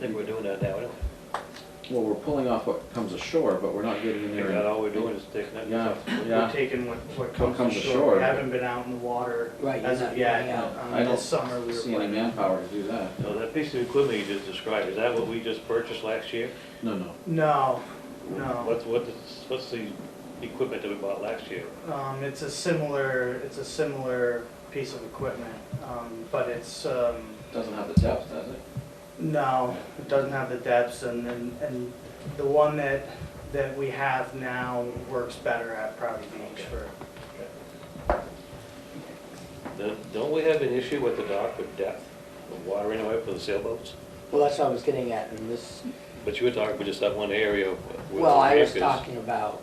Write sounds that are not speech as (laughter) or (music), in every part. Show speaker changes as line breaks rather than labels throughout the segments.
think we're doing that now, anyway.
Well, we're pulling off what comes ashore, but we're not getting in
I
there.
think that all we're doing is taking that
Yeah,
stuff.
We're
yeah.
taking what, what
What
comes ashore.
ashore.
We haven't been out in the water
Right,
as
you're
of
not-
yet.
yeah.
Um,
I don't
This summer we were
See any
planning.
manpower to do that?
Now, that piece of equipment you just described, is that what we just purchased last year?
No, no.
No, no.
What's, what is- what's the equipment that we bought last year?
Um, it's a similar, it's a similar piece of equipment, um, but it's, um,
Doesn't have the depth, does it?
No, it doesn't have the depths and, and, and the one that, that we have now works better at Proudey Beach for,
Don't- Don't we have an issue with the dock with depth, the water anyway for the sailboats?
Well, that's what I was getting at in this,
But you were talking about just that one area where the
well, I was
ramp is.
talking about.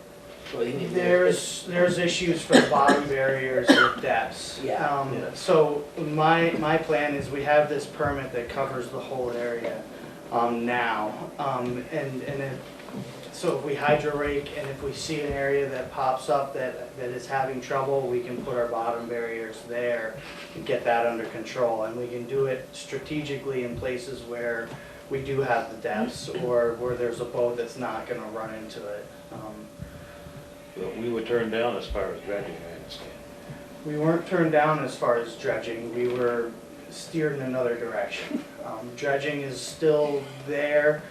well, you mean
there's, there's issues for bottom barriers with depths.
Yeah.
Um,
Yeah.
So my, my plan is we have this permit that covers the whole area, um, now. Um, and, and it, so if we hydro rake and if we see an area that pops up that, that is having trouble, we can put our bottom barriers there and get that under control. And we can do it strategically in places where we do have the depths or where there's a boat that's not gonna run into it. Um,
But We were turned down as far as dredging, I understand.
We weren't turned down as far as dredging, we were steered in another direction. Um, Dredging is still there,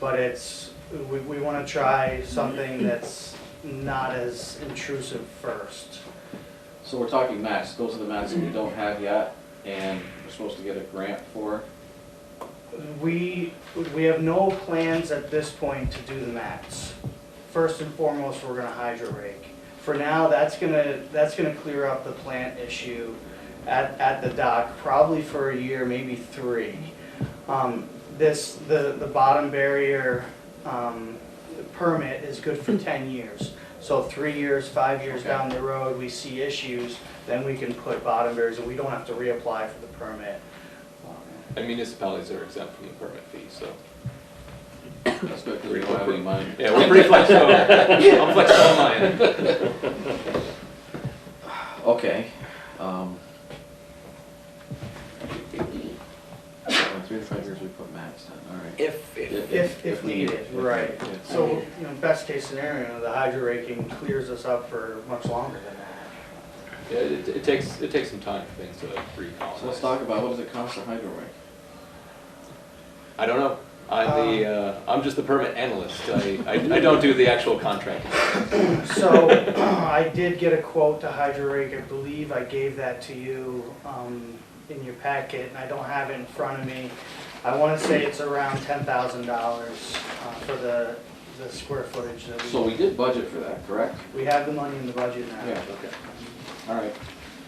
but it's, we, we wanna try something that's not as intrusive first.
So we're talking mats, those are the mats that we don't have yet, and we're supposed to get a grant for.
We, we have no plans at this point to do the mats. First and foremost, we're gonna hydro rake. For now, that's gonna, that's gonna clear up the plant issue at, at the dock, probably for a year, maybe three. Um, this, the, the bottom barrier, um, permit is good for ten years. So three years, five years
Okay.
down the road, we see issues, then we can put bottom barriers, and we don't have to reapply for the permit. Um,
And municipalities are exempt from the permit fee, so.
That's good, because we don't have any money.
Yeah, we're pretty flexible. I'm flexible on mine.
Okay. um, in Three to five years we put mats in, all right.
If, if,
If, if needed, right.
Yeah.
So, you know, best case scenario, the hydro raking clears us up for much longer than that.
(laughs) Yeah, it, it takes, it takes some time for things to
So let's
recolonize.
talk about, what does it cost to hydro rake?
I don't know. I'm the,
Um,
uh, I'm just the permit analyst. I, I, I don't do the actual contracting.
So, (clears throat) I did get a quote to hydro rake, I believe I gave that to you, um, in your packet, and I don't have it in front of me. I wanna say it's around ten thousand dollars, uh, for the, the square footage that
So
we,
we did budget for that, correct?
we have the money in the budget now.
Yeah, okay. All right.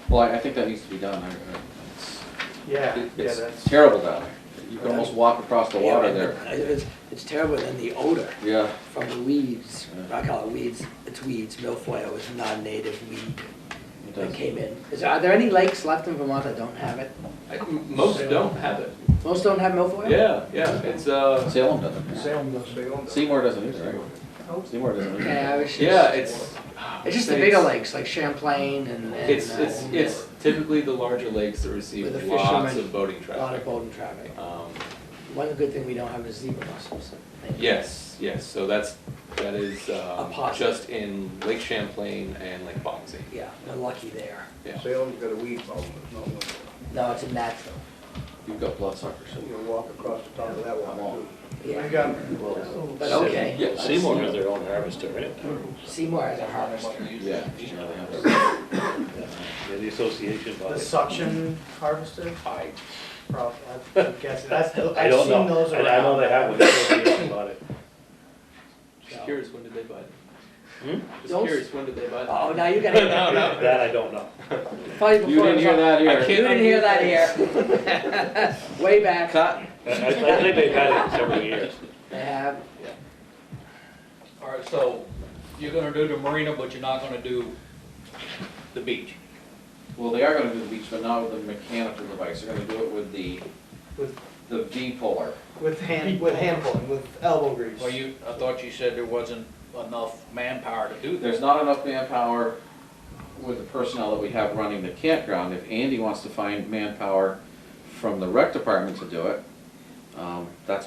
Well, I, I think that needs to be done. I- I- It's
Yeah,
It-
yeah,
It's
that's,
terrible down there. You can almost walk across the
yeah,
water
and the-
there.
It's, it's terrible, and then the odor
Yeah,
from the weeds,
Yeah.
I call it weeds, it's weeds, milfoil is a non-native weed
it
that
does.
came in. Is, there- are there any lakes left in Vermont that don't have it?
I- Most don't have it.
Most don't have milfoil?
Yeah, yeah, it's, uh,
Salem doesn't. Seymour doesn't either,
Oh.
right? Seymour doesn't
Yeah, I
either.
was just.
yeah, it's.
It's just the bigger lakes, like Champlain and, and.
It's, it's,
uh,
it's typically the larger lakes that
With
receive
the
lots
fishermen,
of boating
A lot of
traffic.
boating traffic.
Um,
One good thing we don't have is zebra mussels. Thank you.
Yes, yes, so that's, that is, um,
positive.
just in Lake Champlain and Lake Bonzi.
Yeah, we're lucky there.
Yeah.
Salem's got a weed problem, it's not one,
No, it's a natural.
You've got bloodsuckers.
you know, walk across the top of that one.
Yeah.
we got,
But okay.
Yeah.
Seymour has their own harvester, right?
Seymour has a harvester.
Yeah. yeah, they have it.
Yeah, the association bought
the
it.
suction harvester?
I,
Probably,
(laughs)
I guess, that's, the-
I
I've
don't
seen
know.
those
I
around.
I know they have one, the association bought it.
just curious, when did they buy it?
Hmm?
Just
Don't-
curious, when did they buy it?
Oh, now you
(laughs)
gotta.
No, no, that I don't know.
Probably before.
You didn't hear that
I
here.
You didn't hear that
(laughs)
here. (laughs) Way back.
I, I I think they've had it several years.
They have,
All right, so you're gonna do the marina, but you're not gonna do the beach.
Well, they are gonna do the beach, but not with the mechanical device. They're gonna do it with the,
With-
the V-polar.
With hand, with hand pulling, with elbow grease.
Well, you, I thought you said there wasn't enough manpower to do that.
There's not enough manpower with the personnel that we have running the campground. If Andy wants to find manpower from the rec department to do it, um, that's a